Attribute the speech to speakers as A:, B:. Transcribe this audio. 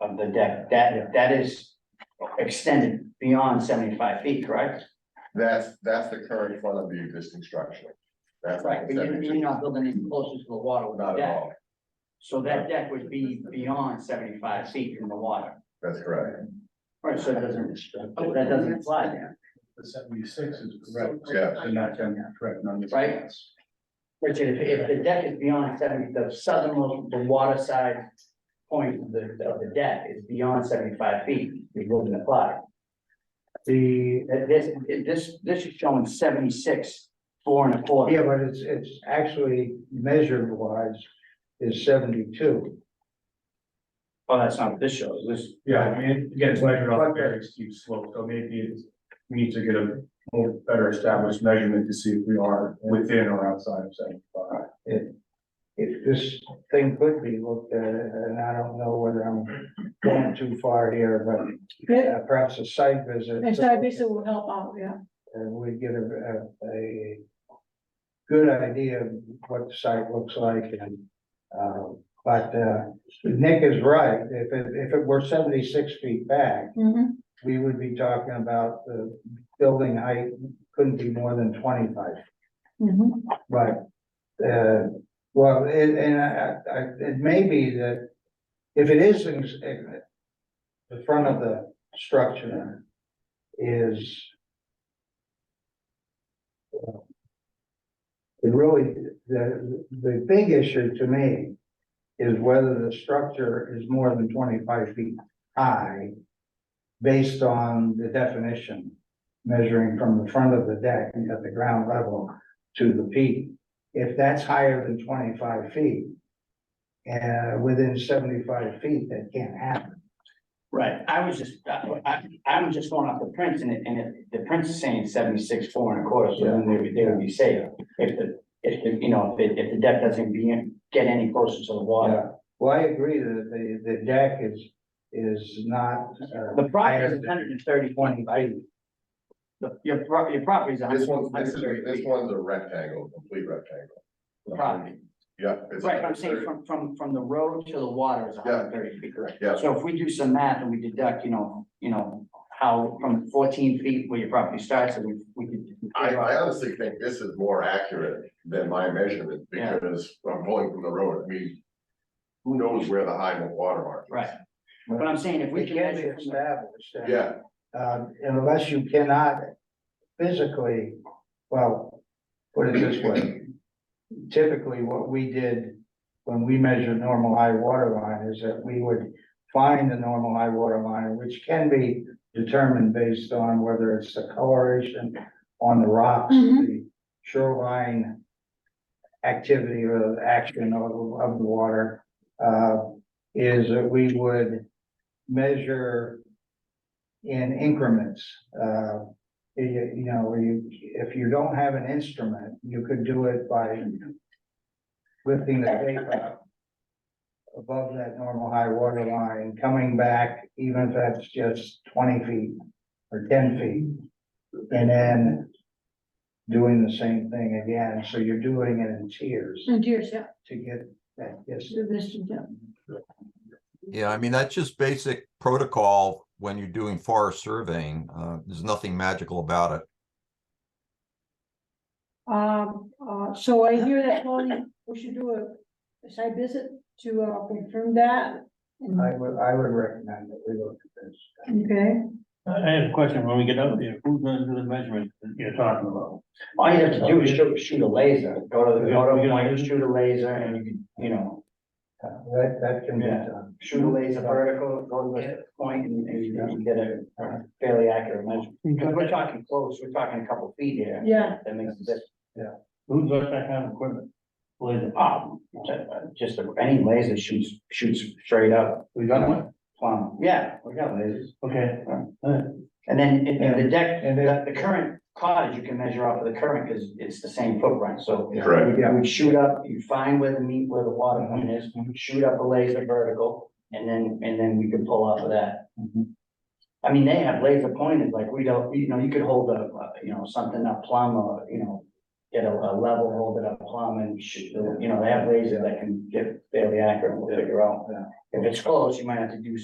A: um, the deck, that, that is extended beyond seventy-five feet, correct?
B: That's, that's the current front of the existing structure. That's.
A: Right, but you're, you're not building any closer to the water with the
B: Not at
A: deck,
B: all,
A: so that deck would be beyond seventy-five feet from the water.
B: that's correct.
A: Right, so it doesn't, that doesn't apply there,
C: The seventy-six is correct.
B: Yeah.
C: And not ten, correct, none of this.
A: Right. Richard, if, if the deck is beyond seventy, the southernmost, the water side point of the, of the deck is beyond seventy-five feet, it wouldn't apply. The, uh, this, this, this is showing seventy-six, four and a quarter.
D: Yeah, but it's, it's actually measured wise is seventy-two.
A: Oh, that's not what this shows, this,
C: Yeah, I mean, again, it's measured off a very steep slope, so maybe it's, we need to get a more better established measurement to see if we are within or outside of seventy-five.
D: If this thing could be looked at, and I don't know whether I'm going too far here, but
E: Good,
D: uh, perhaps a site visit.
E: and so I guess it will help out, yeah.
D: And we get a, a, a good idea of what the site looks like and, um, but, uh, Nick is right. If it, if it were seventy-six feet back,
E: Mhm.
D: we would be talking about the building height couldn't be more than twenty-five.
E: Mhm.
D: Right. Uh, well, and, and I, I, it may be that if it is in, in the front of the structure is uh, it really, the, the big issue to me is whether the structure is more than twenty-five feet high based on the definition measuring from the front of the deck at the ground level to the peak. If that's higher than twenty-five feet, uh, within seventy-five feet, that can't happen.
A: Right, I was just, I, I, I'm just going off the prints and it, and it, the prints is saying seventy-six, four and a quarter, so then they would, they would be safe. If the, if the, you know, if, the- if the deck doesn't be, in- get any closer to the water.
D: Well, I agree that the, the deck is, is not, uh,
A: The property is hundred and thirty twenty feet. The, your pro, your property is a
B: This
A: hundred
B: one's,
A: and
B: this is,
A: thirty
B: this
A: feet.
B: one's a rectangle, complete rectangle.
A: The property,
B: Yeah. it's
A: right, but I'm saying
B: 130.
A: from, from, from the road to the water is hundred and thirty feet, correct?
B: Yeah.
A: So if we do some math and we deduct, you know, you know, how from fourteen feet where your property starts, and we, we could.
B: I, I honestly think this is more accurate than my measurement,
A: Yeah.
B: because I'm pulling from the road, I mean. Who knows where the high and water mark is?
A: Right, but I'm saying if we
D: it
A: can
D: can be
A: measure. from the-
D: established. and,
B: Yeah,
D: Um, unless you cannot physically, well, put it this way. Typically, what we did when we measured normal high water line is that we would find the normal high water line, which can be determined based on whether it's the coloration on the rocks,
E: Mhm.
D: the shoreline activity or the action of, of the water, uh, is that we would measure in increments. Uh, you, you know, you, if you don't have an instrument, you could do it by lifting the tape up above that normal high water line, coming back, even if that's just twenty feet or ten feet. And then doing the same thing again, so you're doing it in tiers
E: And yours, yeah,
D: to get that distance.
E: the best you can.
F: Yeah, I mean, that's just basic protocol when you're doing forest surveying. Uh, there's nothing magical about it.
E: Um, uh, so I hear that, Tony, we should do a- a site visit to uh, confirm that. And-
D: I would, I would recommend that we look at this.
E: Okay,
G: I I have a question, when we get up there, who's gonna do the measurement that you're talking about?
A: All you have to do is shoot, shoot a laser, go to, the
G: Yeah,
A: go to
G: we
A: a
G: gotta
A: point,
G: do-
A: shoot a laser and you can, you know,
D: Uh, That, that can be
A: Yeah.
D: done.
A: shoot a laser vertical, go to the point and and you can get a a fairly accurate measurement. Because we're talking close, we're talking a couple feet here.
E: Yeah.
A: That makes a difference.
G: Who's got that kind of equipment? Laser.
A: Um, uh, just a- any laser shoots, shoots straight up,
G: We got one?
A: plumb. Yeah, we got lasers.
G: Okay.
A: And then in in the deck,
D: And then,
A: the, the current cottage, you can measure off of the current because it's the same footprint, so.
B: correct.
A: You would shoot up, you find where the meet, where the water point is, shoot up a laser vertical, and then, and then we could pull off of that. I mean, they have laser pointers, like we don't, you know, you could hold a, uh, you know, something up plumb or, you know, get a, a level, hold it up plumb and shoot, the- you know, they have laser that can get fairly accurate, we'll figure out. If it's close, you might have to do